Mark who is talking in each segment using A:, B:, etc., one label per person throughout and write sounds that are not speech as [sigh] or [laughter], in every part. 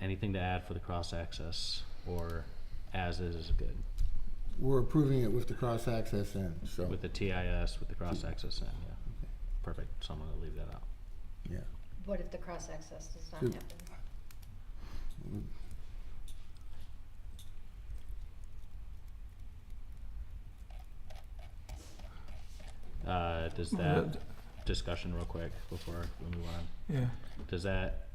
A: Anything to add for the cross-access, or as is is good,
B: We're approving it with the cross-access in, so,
A: with the TIS, with the cross-access in, yeah. Perfect, so I'm gonna leave that out.
B: yeah.
C: What if the cross-access does not
B: Should-
C: happen?
A: Uh, does
D: Well,
A: that, discussion real quick before we move on,
D: Yeah,
A: does that,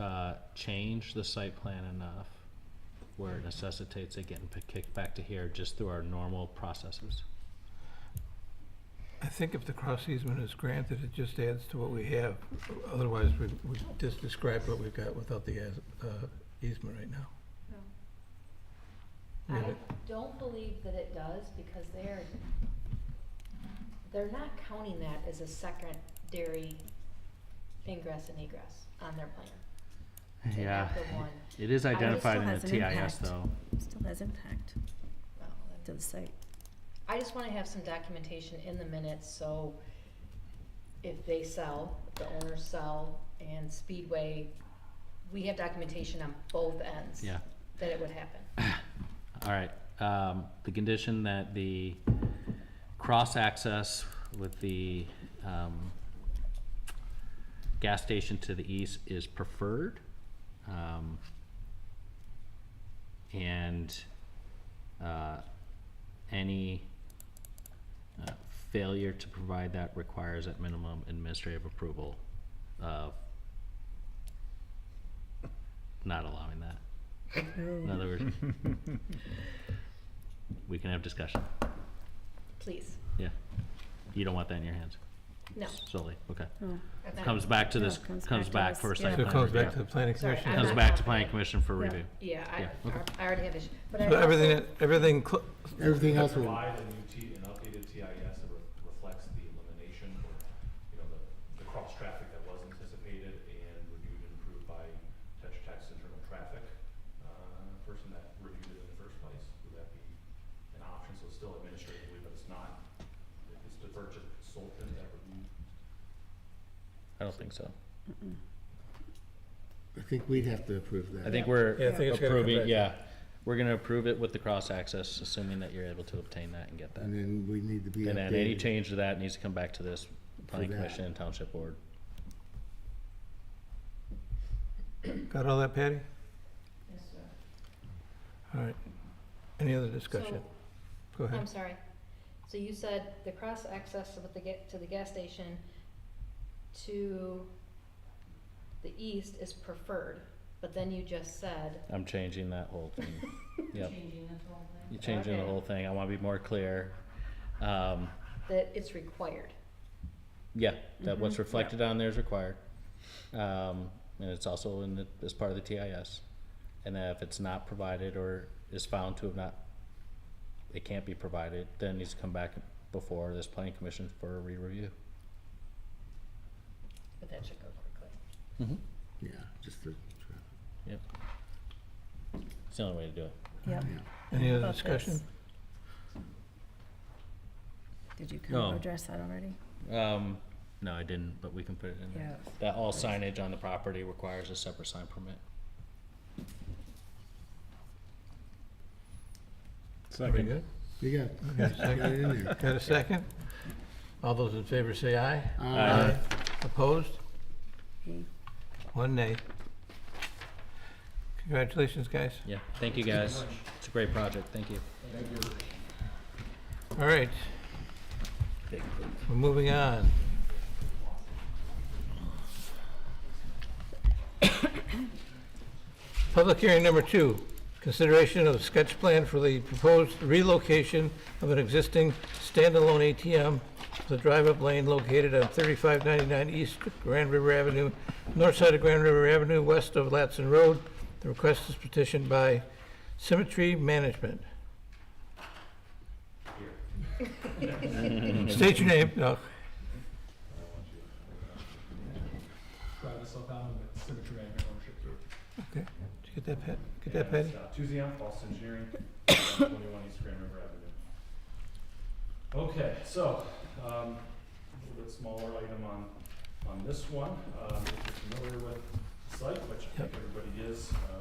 A: uh, change the site plan enough where it necessitates it getting p- kicked back to here just through our normal processes?
D: I think if the cross easement is granted, it just adds to what we have. Otherwise, we, we just described what we've got without the as- uh, easement right now. I mean,
C: I
D: it-
C: don't believe that it does, because they're, they're not counting that as a secondary ingress and egress on their plan. to
A: Yeah,
C: have the one.
A: it is
C: would-
A: identified
E: Still
A: in the
E: has an
A: TIS
E: impact.
A: though.
E: Still has impact
C: Well, then-
E: to the site.
C: I just wanna have some documentation in the minutes, so if they sell, if the owners sell, and Speedway, we have documentation on both ends.
A: Yeah.
C: That it would happen.
A: All right, um, the condition that the cross-access with the, um, gas station to the east is preferred. Um, and, uh, any, uh, failure to provide that requires at minimum administrative approval of not allowing that. In other words, we can have discussion.
C: Please,
A: Yeah. You don't want that in your hands
C: no.
A: solely. Okay.
E: Oh,
C: I'm not-
A: Comes back to
E: No,
A: this,
E: it comes
A: comes back
E: back to us,
A: for a
E: yeah.
A: site
D: So it
A: plan
D: comes back to
A: review.
D: the planning
C: Sorry,
D: commission.
C: I'm
A: Comes
C: not
A: back to
C: confident.
A: planning commission for
E: Yeah.
A: review.
C: Yeah, I,
A: Yeah, okay.
C: I already have issue, but I
D: So everything,
C: also,
D: that- everything, cl-
B: Everything else will,
F: Provide a new T, an updated TIS that re- reflects the elimination or, you know, the, the cross-traffic that was anticipated and reviewed and approved by Tetra Tech's internal traffic, uh, person that reviewed it in the first place, would that be an option? So it's still administratively, but it's not, it's deferred to the consultant that reviewed.
A: I don't think so.
B: I think we'd have to approve that.
A: I think we're
D: Yeah, I think it's gonna come
A: approving,
D: back.
A: yeah. We're gonna approve it with the cross access, assuming that you're able to obtain that and get that.
B: And then we need to be updated.
A: And then any change to that needs to come back to this planning
B: that.
A: commission and township board.
D: got all that, Patty?
C: Yes, sir.
D: All right. Any other discussion? Go
C: I'm
D: ahead.
C: sorry. So you said the cross access with the ga- to the gas station to the east is preferred, but then you just said,
A: I'm changing that whole thing. Yep,
G: Changing the whole thing.
A: you're changing the
C: Okay.
A: whole thing. I wanna be more clear. Um,
C: that it's required.
A: Yeah, that what's reflected on there is required. Um, and it's also in the, as part of the TIS. And that if it's not provided or is found to have not, it can't be provided, then it needs to come back before this planning commission for a re-review.
C: But that should go quickly.
B: Yeah, just the,
A: It's the only way to do it.
E: Yep.
B: yeah.
D: Any other
E: About this.
D: discussion?
E: Did you kind of
A: No.
E: address that already?
A: Um, no, I didn't, but we can put it in there.
E: Yeah.
A: That all signage on the property requires a separate sign permit.
D: Pretty good.
B: You got,
D: Got
B: you
D: a
B: got
D: second?
B: it in there.
D: Got a second? All those in favor say aye.
B: Uh,
A: Aye.
D: Opposed?
E: He-
D: One nay. Congratulations, guys.
A: Yeah, thank you guys. It's a great project, thank you.
D: All right. We're moving on. Public hearing number two, consideration of sketch plan for the proposed relocation of an existing standalone ATM with a drive-up lane located on 3599 East Grand River Avenue, north side of Grand River Avenue, west of Latson Road. The request is petitioned by Symmetry Management.
A: [laughs]
D: State your name. No.
F: Drive this up out with symmetry and ownership group.
D: Okay, did you get that, Pat? Get that, Patty?
F: Tuesday on Boston Engineering, 21 East Grand River Avenue. Okay, so, um, a little bit smaller item on, on this one. Um, If you're familiar with the site, which I think everybody is, uh,